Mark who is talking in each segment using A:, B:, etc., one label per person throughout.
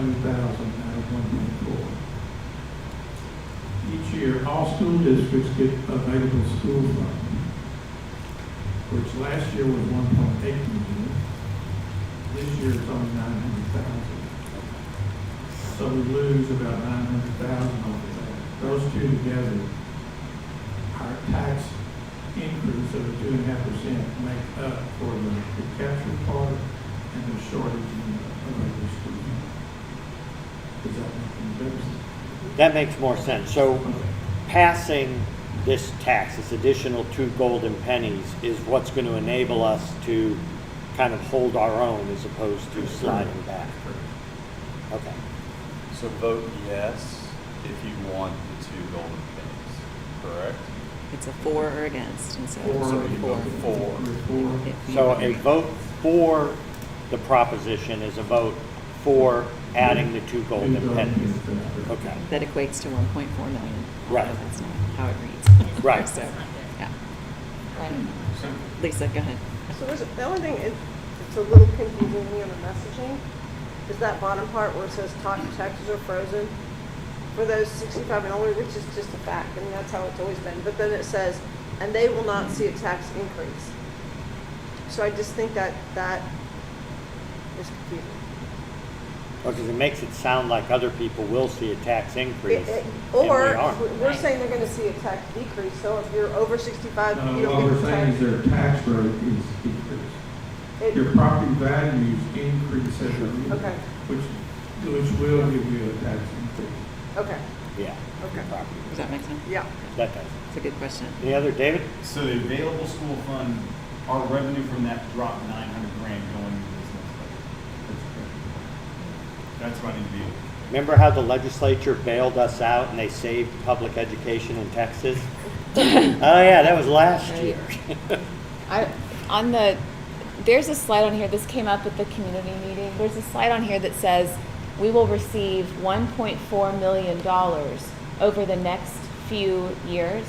A: thousand out of one point four. Each year, all school districts get available school funding, which last year was one point eight million. This year it's only nine hundred thousand. So we lose about nine hundred thousand over that. Those two together, our tax increase of two and a half percent make up for the the capture part and the shortage in the available school funding. Does that make any sense?
B: That makes more sense. So passing this tax, this additional two golden pennies, is what's going to enable us to kind of hold our own as opposed to sliding back. Okay.
C: So vote yes if you want the two golden pennies, correct?
D: It's a for or against, and so
A: Four.
D: it's a four.
C: Four.
A: Four.
D: If you-
B: So a vote for the proposition is a vote for adding the two golden pennies. Okay.
D: That equates to 1.4 million.
B: Right.
D: although That's not how it reads.
B: Right.
D: So, yeah.
A: So,
D: Lisa, go ahead.
E: So is it, the only thing, it, it's a little confusing me on the messaging, is that bottom part where it says tax taxes are frozen for those sixty-five and older, which is just a fact, and that's how it's always been, but then it says, and they will not see a tax increase. So I just think that, that is confusing.
B: Because it makes it sound like other people will see a tax increase.
E: It- it-
B: and we
E: Or,
B: aren't.
E: we're saying they're gonna see a tax decrease, so if you're over sixty-five,
A: No,
E: you don't
A: what
E: get
A: we're
E: the
A: saying
E: tax.
A: is their tax rate is decreased.
E: It-
A: Your property values increase every year.
E: Okay.
A: Which, which will give you a tax increase.
E: Okay,
B: Yeah.
E: okay,
B: property.
D: Does that make sense?
E: yeah.
B: That does.
D: It's a good question.
B: Any other, David?
F: So the available school fund, our revenue from that dropped nine hundred grand going into this next budget. That's what I need to be,
B: Remember how the legislature bailed us out and they saved public education in Texas? Oh, yeah, that was last
G: Right.
B: year.
G: I, on the, there's a slide on here, this came up at the community meeting, there's a slide on here that says, we will receive one point four million dollars over the next few years.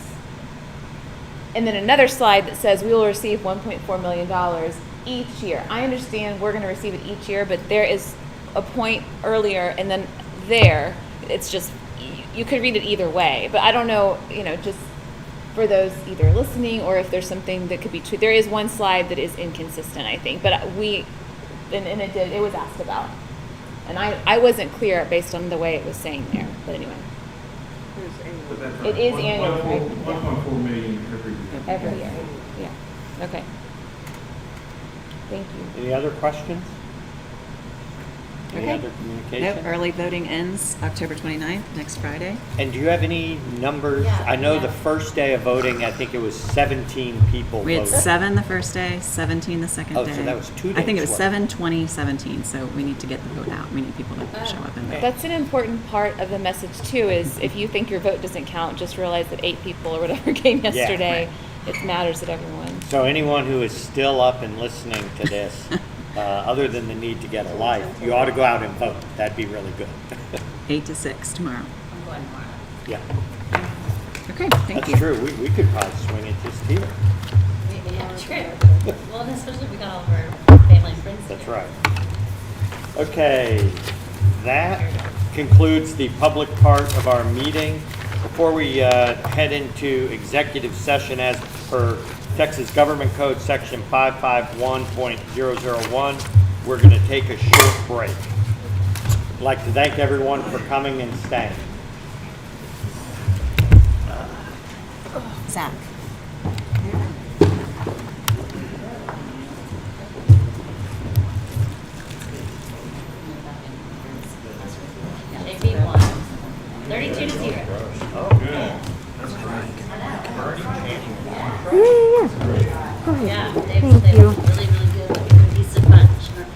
G: And then another slide that says, we will receive one point four million dollars each year. I understand we're gonna receive it each year, but there is a point earlier and then there, it's just, y- you could read it either way, but I don't know, you know, just for those either listening or if there's something that could be true. There is one slide that is inconsistent, I think, but we, and, and it did, it was asked about. And I, I wasn't clear based on the way it was saying there, but anyway,
E: Here's Amy.
A: But that's
G: It is
A: one-
G: annual,
A: one point-
G: right?
A: One point four million every year.
G: every year, yeah, okay. Thank you.
B: Any other questions? Any
G: Okay.
B: other
D: Nope,
B: communication?
D: early voting ends October 29th, next Friday.
B: And do you have any numbers?
G: Yeah,
B: I know
G: yeah.
B: the first day of voting, I think it was 17 people
D: We had
B: voted.
D: seven the first day, 17 the second day.
B: Oh, so that was two
D: I think it
B: days'
D: was
B: worth.
D: 7, 20, 17, so we need to get the vote out. We need people to show up and vote.
G: That's an important part of the message too, is if you think your vote doesn't count, just realize that eight people or whatever came
B: Yeah.
G: yesterday, it matters that everyone.
B: So anyone who is still up and listening to this, uh, other than the need to get a life, you ought to go out and vote. That'd be really good.
D: 8 to 6 tomorrow.
B: Yeah,
D: Okay, thank
B: that's
D: you.
B: true. We we could probably swing it just here.
H: Yeah, true. Well, and especially if we got all of our family and friends.
B: That's
H: together.
B: right. Okay, that concludes the public part of our meeting. Before we uh, head into executive session as per Texas Government Code, Section 551.001, we're going to take a short break. I'd like to thank everyone for coming and staying.
D: Zach.
H: They beat one. Thirty-two to zero.
F: good. That's great.
H: Yeah.